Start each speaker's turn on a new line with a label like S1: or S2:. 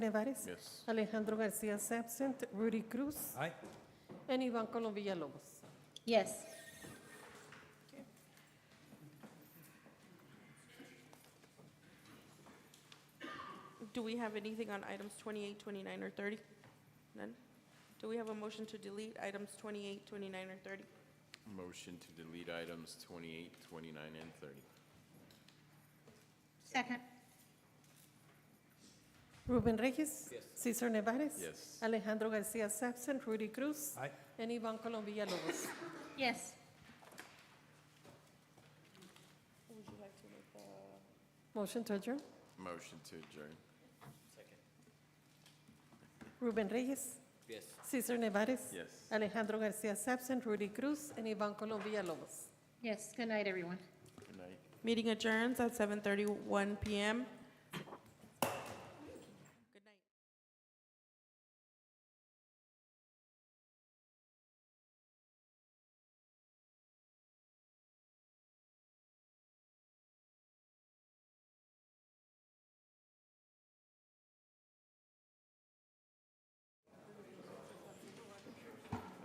S1: Nevaris.
S2: Yes.
S1: Alejandro Garcia is absent. Rudy Cruz.
S3: Aye.
S1: And Ivan Colom Villalobos.
S4: Yes.
S5: Do we have anything on items 28, 29, or 30? None? Do we have a motion to delete items 28, 29, or 30?
S2: Motion to delete items 28, 29, and 30.
S4: Second.
S1: Ruben Reyes. Cesar Nevaris.
S2: Yes.
S1: Alejandro Garcia is absent. Rudy Cruz.
S3: Aye.
S1: And Ivan Colom Villalobos.
S4: Yes.
S5: Would you like to make the,
S1: Motion to adjourn.
S2: Motion to adjourn.
S1: Ruben Reyes.
S3: Yes.
S1: Cesar Nevaris.
S2: Yes.
S1: Alejandro Garcia is absent. Rudy Cruz. And Ivan Colom Villalobos.
S4: Yes. Good night, everyone.
S2: Good night.
S5: meeting adjourns at 7:31 PM.